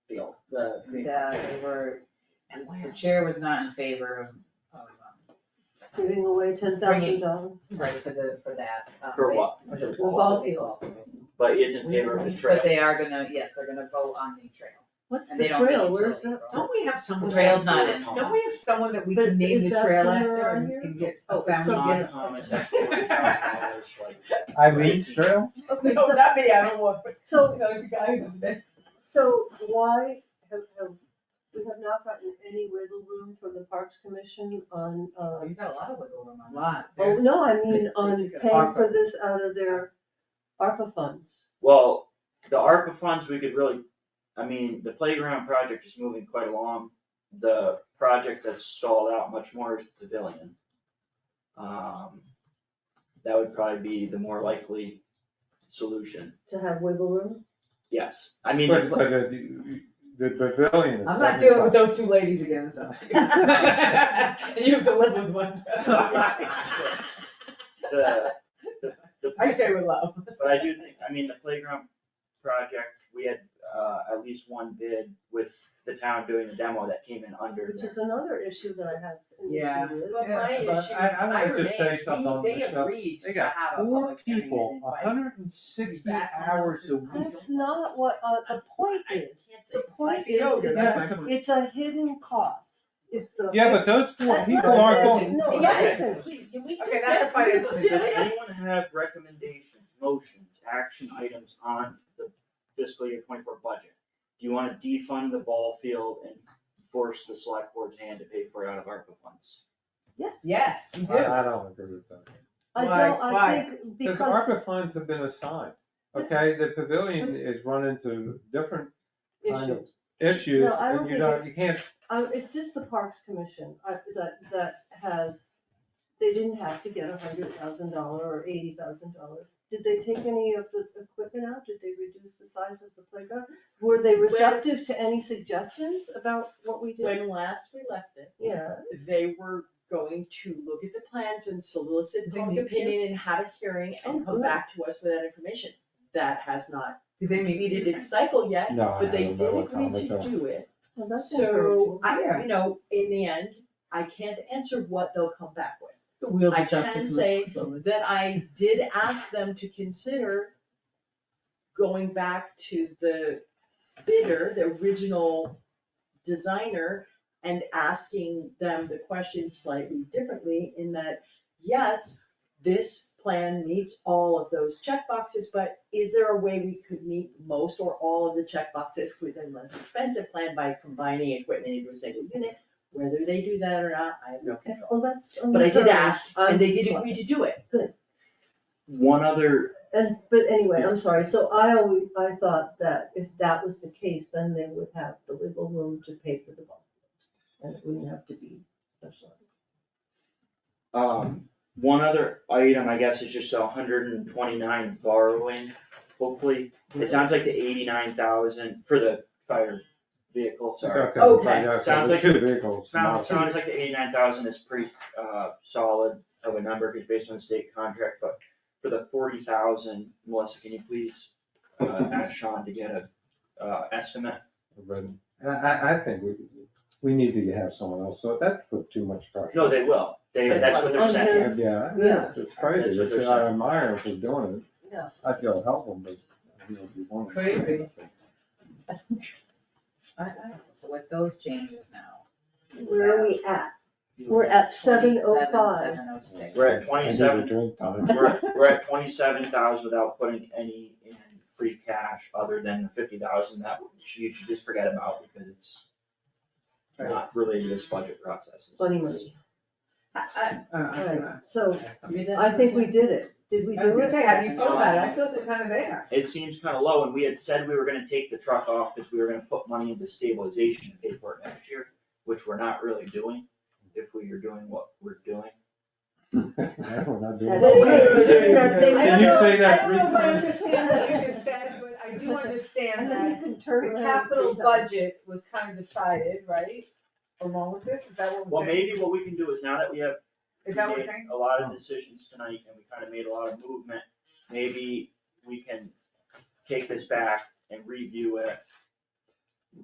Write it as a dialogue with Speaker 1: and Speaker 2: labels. Speaker 1: the,
Speaker 2: Green.
Speaker 1: that they were, the chair was not in favor of, of, um,
Speaker 3: giving away ten thousand dollars.
Speaker 1: right, for the, for that. um,
Speaker 2: For
Speaker 1: they-
Speaker 2: what?
Speaker 1: for the
Speaker 3: Well,
Speaker 1: ball
Speaker 3: both.
Speaker 1: field.
Speaker 2: But he is in favor of the
Speaker 1: But
Speaker 2: trail.
Speaker 1: they are gonna, yes, they're gonna vote on the trail,
Speaker 3: What's
Speaker 1: and
Speaker 3: the
Speaker 1: they don't. make
Speaker 3: trail,
Speaker 1: it
Speaker 3: where's
Speaker 1: till
Speaker 3: that?
Speaker 1: April.
Speaker 4: Don't we have someone?
Speaker 1: The trail's not in.
Speaker 4: Don't we have someone that we
Speaker 3: But
Speaker 4: can name
Speaker 3: is
Speaker 4: the
Speaker 3: that
Speaker 4: trail
Speaker 3: somewhere
Speaker 4: after
Speaker 3: on
Speaker 4: and
Speaker 3: here?
Speaker 4: can get
Speaker 3: Oh,
Speaker 4: a
Speaker 3: it's
Speaker 4: found
Speaker 3: some-
Speaker 4: on?
Speaker 3: yeah.
Speaker 2: Um, it's like $40,000, like,
Speaker 5: Eileen's Trail?
Speaker 3: Okay,
Speaker 1: Oh,
Speaker 4: No,
Speaker 3: so,
Speaker 4: not me, I don't want,
Speaker 3: so,
Speaker 4: no, the guy who did
Speaker 3: so why have, have, we have not gotten any wiggle room from the Parks Commission on,
Speaker 1: Oh,
Speaker 3: um,
Speaker 1: You've got a lot of wiggle room on
Speaker 4: a
Speaker 1: that.
Speaker 4: lot.
Speaker 3: oh, no, I mean,
Speaker 1: They-
Speaker 3: on
Speaker 1: they took it
Speaker 3: paying for
Speaker 1: ARPA.
Speaker 3: this out of their ARPA funds.
Speaker 2: Well, the ARPA funds, we could really, I mean, the playground project is moving quite along. The project that's stalled out much more is the pavilion. Um, that would probably be the more likely solution,
Speaker 3: To have wiggle room?
Speaker 2: yes, I mean.
Speaker 5: But, but uh, the, the pavilion is.
Speaker 4: I'm not dealing with
Speaker 5: seventy-five.
Speaker 4: those two ladies again, so. And you have to live with one. I
Speaker 2: The, the, the.
Speaker 4: say with love.
Speaker 2: But I do think, I mean, the playground project, we had, uh, at least one bid with the town doing the demo that came in under
Speaker 3: Which
Speaker 2: there.
Speaker 3: is another issue that I have an
Speaker 4: Yeah.
Speaker 3: issue with.
Speaker 4: But my
Speaker 5: Yeah, but
Speaker 4: issue
Speaker 5: I-
Speaker 4: is
Speaker 5: I wanna
Speaker 4: Iron
Speaker 5: just say
Speaker 4: Man,
Speaker 5: something
Speaker 4: they-
Speaker 5: on
Speaker 4: they
Speaker 5: this stuff.
Speaker 4: agreed
Speaker 5: They
Speaker 4: to
Speaker 5: got
Speaker 4: have a
Speaker 5: Four
Speaker 4: public hearing
Speaker 5: people,
Speaker 4: and invite-
Speaker 5: hundred and sixty
Speaker 4: Back on
Speaker 5: hours a
Speaker 4: the-
Speaker 5: week.
Speaker 3: That's not what, uh, the point is, the point
Speaker 4: Like
Speaker 3: is,
Speaker 4: yoga,
Speaker 3: is
Speaker 4: that's
Speaker 3: that it's a hidden cost. It's the.
Speaker 5: Yeah, but those four
Speaker 3: That's
Speaker 5: people
Speaker 3: not
Speaker 5: aren't
Speaker 3: fair.
Speaker 5: going,
Speaker 3: No,
Speaker 4: Yeah.
Speaker 3: listen, Oh, please, can we
Speaker 4: Okay,
Speaker 3: just
Speaker 4: that's
Speaker 3: get
Speaker 4: fine.
Speaker 3: rid of
Speaker 4: Does
Speaker 2: Does anyone
Speaker 4: Yes.
Speaker 2: have recommendations, motions, action items on the fiscal year twenty-four budget? Do you wanna defund the ball field and force the select board's hand to pay for it out of ARPA funds?
Speaker 3: Yes,
Speaker 4: Yes, we
Speaker 5: I,
Speaker 4: do.
Speaker 5: I don't agree with that.
Speaker 3: I
Speaker 4: Why?
Speaker 3: don't, I
Speaker 4: Why?
Speaker 3: think
Speaker 5: Because
Speaker 3: because
Speaker 5: ARPA funds have been assigned, okay, the pavilion is run into different kind of
Speaker 3: issues,
Speaker 5: issues,
Speaker 3: No, I don't
Speaker 5: and you
Speaker 3: think
Speaker 5: don't, you can't,
Speaker 3: uh, it's just the Parks Commission, uh, that, that has, they didn't have to get a hundred thousand dollar or eighty thousand dollars. Did they take any of the equipment out? Did they reduce the size of the playground? Were they receptive to any suggestions about what we did?
Speaker 4: When last we left it,
Speaker 3: Yeah,
Speaker 4: they were going to look at the plans and solicit
Speaker 3: Did they
Speaker 4: public
Speaker 3: meet here?
Speaker 4: opinion and have a hearing
Speaker 3: Oh,
Speaker 4: and come
Speaker 3: good.
Speaker 4: back to us with that information. That has not completed its cycle yet,
Speaker 5: no, I
Speaker 4: but they
Speaker 5: don't know
Speaker 4: did
Speaker 5: what kind
Speaker 4: agree
Speaker 5: of.
Speaker 4: to do it.
Speaker 3: well, that's
Speaker 4: So,
Speaker 3: encouraging.
Speaker 4: I, you know, in the end, I can't answer what they'll come back with. I can say that I did ask them to consider going back to the bidder, the original designer, and asking them the question slightly differently in that, yes, this plan meets all of those checkboxes, but is there a way we could meet most or all of the checkboxes within less expensive plan by combining equipment into a single unit? Whether they do that or not, I have no
Speaker 3: Okay,
Speaker 4: control.
Speaker 3: Well, that's.
Speaker 4: But I did
Speaker 3: encouraging.
Speaker 4: ask, and they did agree to do it.
Speaker 2: One other,
Speaker 3: As, but anyway, I'm sorry, so I always, I thought that if that was the case, then they would have the wiggle room to pay for the bond. And it wouldn't have to be special.
Speaker 2: um, one other item, I guess, is just a hundred and twenty-nine borrowing. Hopefully, it sounds like the eighty-nine thousand for the fire vehicle, sorry.
Speaker 5: Okay,
Speaker 4: Okay.
Speaker 5: right, okay,
Speaker 2: Sounds
Speaker 5: the
Speaker 2: like-
Speaker 5: two vehicles.
Speaker 2: Sounds, sounds like the eighty-nine thousand is pretty, uh, solid of a number, because based on the state contract, but for the forty thousand, Melissa, can you please, uh, ask Sean to get a, uh, estimate?
Speaker 5: But I, I, I think we, we need to have someone else, so that's put too much pressure.
Speaker 2: No, they will, they, that's what they're saying,
Speaker 5: Yeah, Yeah,
Speaker 3: Yeah.
Speaker 5: it's- it's crazy,
Speaker 2: That's what they're
Speaker 5: it's, I admire them for doing it,
Speaker 3: Yeah.
Speaker 5: I feel helpful, but you know, you want. to-
Speaker 1: Crazy. I, I, so with those changes now.
Speaker 3: Where are we at? We're at seven oh five.
Speaker 1: Seven oh six.
Speaker 2: we're at
Speaker 5: I need a
Speaker 2: twenty-seven,
Speaker 5: Drink time.
Speaker 2: we're, at- we're at twenty-seven thousand without putting any in free cash other than the fifty thousand that you should just forget about, because it's not related to this budget process.
Speaker 3: Funny money.
Speaker 4: I, uh,
Speaker 3: Alright, so
Speaker 4: I,
Speaker 3: I think we did it. Did we
Speaker 4: I was
Speaker 3: do
Speaker 4: gonna
Speaker 3: it?
Speaker 4: say, how do you feel about it? I feel so kind of there.
Speaker 2: It seems kind of low, and we had said we were gonna take the truck off because we were gonna put money into stabilization and pay for it next year, which we're not really doing if we are doing what we're doing.
Speaker 5: We're not doing
Speaker 3: That
Speaker 4: Wait, wait, wait, wait, wait,
Speaker 5: it.
Speaker 4: wait. I
Speaker 5: Did
Speaker 4: don't
Speaker 5: you
Speaker 4: know-
Speaker 5: say that
Speaker 4: I
Speaker 5: three
Speaker 4: don't know if I
Speaker 5: times?
Speaker 4: understand that you just said, but I do understand
Speaker 3: And then
Speaker 4: that
Speaker 3: you can turn
Speaker 4: the
Speaker 3: around.
Speaker 4: capital
Speaker 3: and do something.
Speaker 4: budget was kind of decided, right? Along with this, is that what
Speaker 2: Well,
Speaker 4: we're saying?
Speaker 2: maybe what we can do is now that we have.
Speaker 4: Is that what we're
Speaker 2: made
Speaker 4: saying?
Speaker 2: A lot of decisions tonight and we kind of made a lot of movement, maybe we can take this back and review it